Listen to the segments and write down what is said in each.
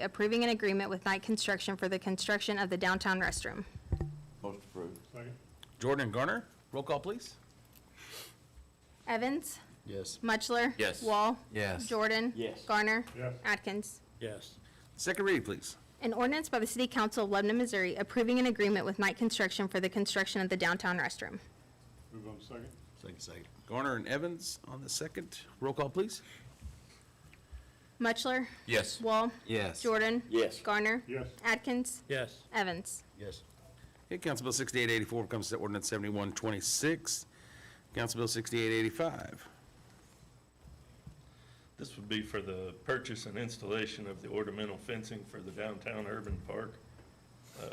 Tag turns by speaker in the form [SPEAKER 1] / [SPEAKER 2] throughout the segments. [SPEAKER 1] approving an agreement with Knight Construction for the construction of the downtown restroom.
[SPEAKER 2] Most approved.
[SPEAKER 3] Second.
[SPEAKER 4] Jordan and Garner, roll call, please.
[SPEAKER 1] Evans?
[SPEAKER 5] Yes.
[SPEAKER 1] Mutchler?
[SPEAKER 4] Yes.
[SPEAKER 1] Wall?
[SPEAKER 4] Yes.
[SPEAKER 1] Jordan?
[SPEAKER 2] Yes.
[SPEAKER 1] Garner?
[SPEAKER 3] Yes.
[SPEAKER 1] Atkins?
[SPEAKER 3] Yes.
[SPEAKER 4] Second read, please.
[SPEAKER 1] An ordinance by the City Council of Lebanon, Missouri approving an agreement with Knight Construction for the construction of the downtown restroom.
[SPEAKER 3] Move on second.
[SPEAKER 5] Second, second.
[SPEAKER 4] Garner and Evans on the second, roll call, please.
[SPEAKER 1] Mutchler?
[SPEAKER 4] Yes.
[SPEAKER 1] Wall?
[SPEAKER 4] Yes.
[SPEAKER 1] Jordan?
[SPEAKER 2] Yes.
[SPEAKER 1] Garner?
[SPEAKER 3] Yes.
[SPEAKER 1] Atkins?
[SPEAKER 3] Yes.
[SPEAKER 1] Evans?
[SPEAKER 5] Yes.
[SPEAKER 4] Okay, Council Bill 6884 becomes ordinance 7126. Council Bill 6885.
[SPEAKER 6] This would be for the purchase and installation of the ornamental fencing for the downtown urban park. Uh,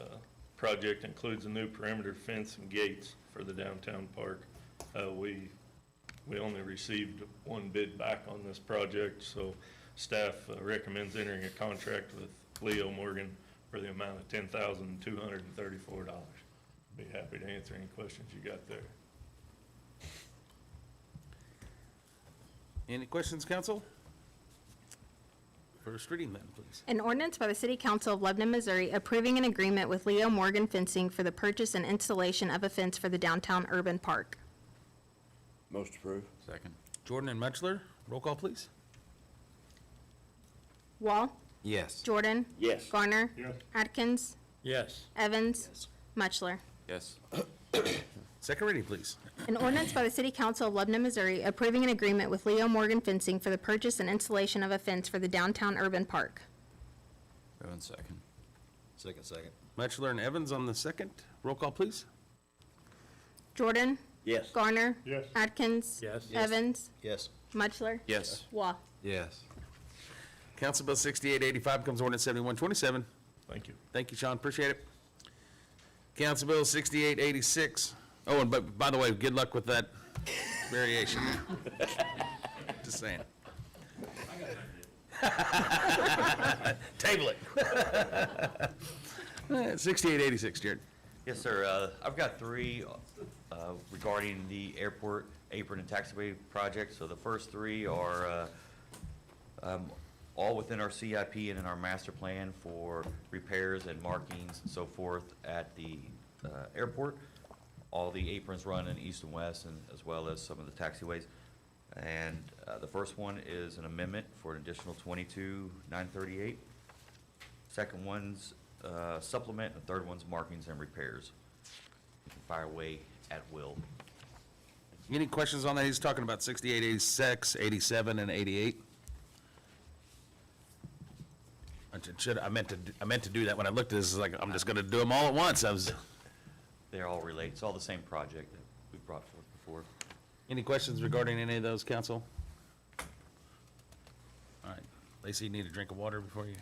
[SPEAKER 6] Project includes a new perimeter fence and gates for the downtown park. Uh, We, we only received one bid back on this project, so staff uh, recommends entering a contract with Leo Morgan for the amount of ten thousand two hundred and thirty-four dollars. Be happy to answer any questions you got there.
[SPEAKER 4] Any questions, council? First reading then, please.
[SPEAKER 1] An ordinance by the City Council of Lebanon, Missouri approving an agreement with Leo Morgan Fencing for the purchase and installation of a fence for the downtown urban park.
[SPEAKER 2] Most approved.
[SPEAKER 7] Second.
[SPEAKER 4] Jordan and Mutchler, roll call, please.
[SPEAKER 1] Wall?
[SPEAKER 7] Yes.
[SPEAKER 1] Jordan?
[SPEAKER 2] Yes.
[SPEAKER 1] Garner?
[SPEAKER 3] Yes.
[SPEAKER 1] Atkins?
[SPEAKER 3] Yes.
[SPEAKER 1] Evans? Mutchler?
[SPEAKER 7] Yes.
[SPEAKER 4] Second reading, please.
[SPEAKER 1] An ordinance by the City Council of Lebanon, Missouri approving an agreement with Leo Morgan Fencing for the purchase and installation of a fence for the downtown urban park.
[SPEAKER 7] Move on second.
[SPEAKER 5] Second, second.
[SPEAKER 4] Mutchler and Evans on the second, roll call, please.
[SPEAKER 1] Jordan?
[SPEAKER 2] Yes.
[SPEAKER 1] Garner?
[SPEAKER 3] Yes.
[SPEAKER 1] Atkins?
[SPEAKER 3] Yes.
[SPEAKER 1] Evans?
[SPEAKER 5] Yes.
[SPEAKER 1] Mutchler?
[SPEAKER 7] Yes.
[SPEAKER 1] Wah.
[SPEAKER 7] Yes.
[SPEAKER 4] Council Bill 6885 becomes ordinance 7127.
[SPEAKER 6] Thank you.
[SPEAKER 4] Thank you, Sean, appreciate it. Council Bill 6886. Oh, and but, by the way, good luck with that variation. Just saying. Table it. 6886, Jared.
[SPEAKER 8] Yes, sir. Uh, I've got three uh, regarding the airport apron and taxiway project. So the first three are uh, um, all within our CIP and in our master plan for repairs and markings and so forth at the uh, airport. All the aprons run in east and west and as well as some of the taxiways. And uh, the first one is an amendment for an additional 22,938. Second one's uh, supplement, and the third one's markings and repairs. You can Fire away at will.
[SPEAKER 4] Any questions on that? He's talking about 6886, 87, and 88. I should- should, I meant to, d- I meant to do that when I looked at this, it's like, I'm just gonna do them all at once. I was,
[SPEAKER 8] They all relate, it's all the same project that we brought forth before.
[SPEAKER 4] any questions regarding any of those, council? All right, Lacey, you need a drink of water before you?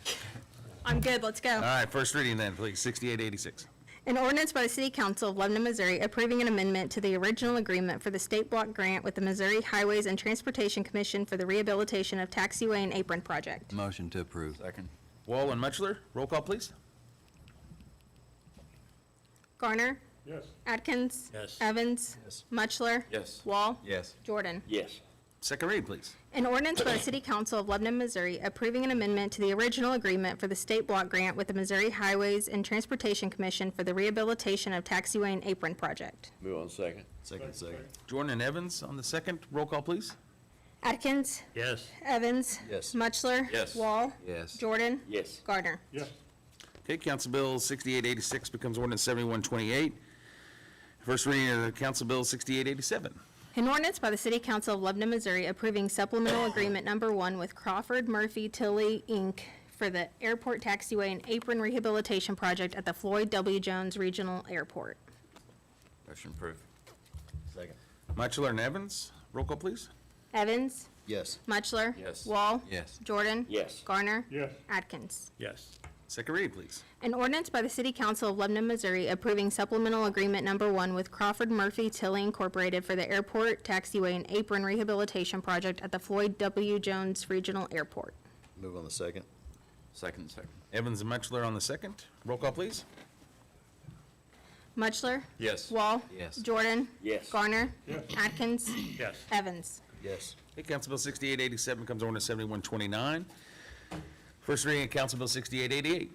[SPEAKER 1] I'm good, let's go.
[SPEAKER 4] All right, first reading then, please, 6886.
[SPEAKER 1] An ordinance by the City Council of Lebanon, Missouri approving an amendment to the original agreement for the state block grant with the Missouri Highways and Transportation Commission for the rehabilitation of taxiway and apron project.
[SPEAKER 7] Motion to approve. Second.
[SPEAKER 4] Wall and Mutchler, roll call, please.
[SPEAKER 1] Garner?
[SPEAKER 3] Yes.
[SPEAKER 1] Atkins?
[SPEAKER 3] Yes.
[SPEAKER 1] Evans?
[SPEAKER 5] Yes.
[SPEAKER 1] Mutchler?
[SPEAKER 7] Yes.
[SPEAKER 1] Wall?
[SPEAKER 7] Yes.
[SPEAKER 1] Jordan?
[SPEAKER 2] Yes.
[SPEAKER 4] Second read, please.
[SPEAKER 1] An ordinance by the City Council of Lebanon, Missouri approving an amendment to the original agreement for the state block grant with the Missouri Highways and Transportation Commission for the rehabilitation of taxiway and apron project.
[SPEAKER 2] Move on second.
[SPEAKER 5] Second, second.
[SPEAKER 4] Jordan and Evans on the second, roll call, please.
[SPEAKER 1] Atkins?
[SPEAKER 3] Yes.
[SPEAKER 1] Evans?
[SPEAKER 5] Yes.
[SPEAKER 1] Mutchler?
[SPEAKER 8] Yes.
[SPEAKER 1] Wall?
[SPEAKER 7] Yes.
[SPEAKER 1] Jordan?
[SPEAKER 2] Yes.
[SPEAKER 1] Gardner.
[SPEAKER 3] Yes.
[SPEAKER 4] Okay, Council Bill 6886 becomes ordinance 7128. First reading of Council Bill 6887.
[SPEAKER 1] An ordinance by the City Council of Lebanon, Missouri approving supplemental agreement number one with Crawford Murphy Tilly, Inc. for the airport taxiway and apron rehabilitation project at the Floyd W. Jones Regional Airport.
[SPEAKER 7] Motion approved.
[SPEAKER 5] Second.
[SPEAKER 4] Mutchler and Evans, roll call, please.
[SPEAKER 1] Evans?
[SPEAKER 5] Yes.
[SPEAKER 1] Mutchler?
[SPEAKER 7] Yes.
[SPEAKER 1] Wall?
[SPEAKER 7] Yes.
[SPEAKER 1] Jordan?
[SPEAKER 2] Yes.
[SPEAKER 1] Garner?
[SPEAKER 3] Yes.
[SPEAKER 1] Atkins?
[SPEAKER 3] Yes.
[SPEAKER 4] Second read, please.
[SPEAKER 1] An ordinance by the City Council of Lebanon, Missouri approving supplemental agreement number one with Crawford Murphy Tilly Incorporated for the airport taxiway and apron rehabilitation project at the Floyd W. Jones Regional Airport.
[SPEAKER 5] Move on the second.
[SPEAKER 7] Second, second.
[SPEAKER 4] Evans and Mutchler on the second, roll call, please.
[SPEAKER 1] Mutchler?
[SPEAKER 7] Yes.
[SPEAKER 1] Wall?
[SPEAKER 7] Yes.
[SPEAKER 1] Jordan?
[SPEAKER 2] Yes.
[SPEAKER 1] Garner?
[SPEAKER 3] Yes.
[SPEAKER 1] Atkins?
[SPEAKER 3] Yes.
[SPEAKER 1] Evans?
[SPEAKER 5] Yes.
[SPEAKER 4] Okay, Council Bill 6887 becomes ordinance 7129. First reading of Council Bill 6888.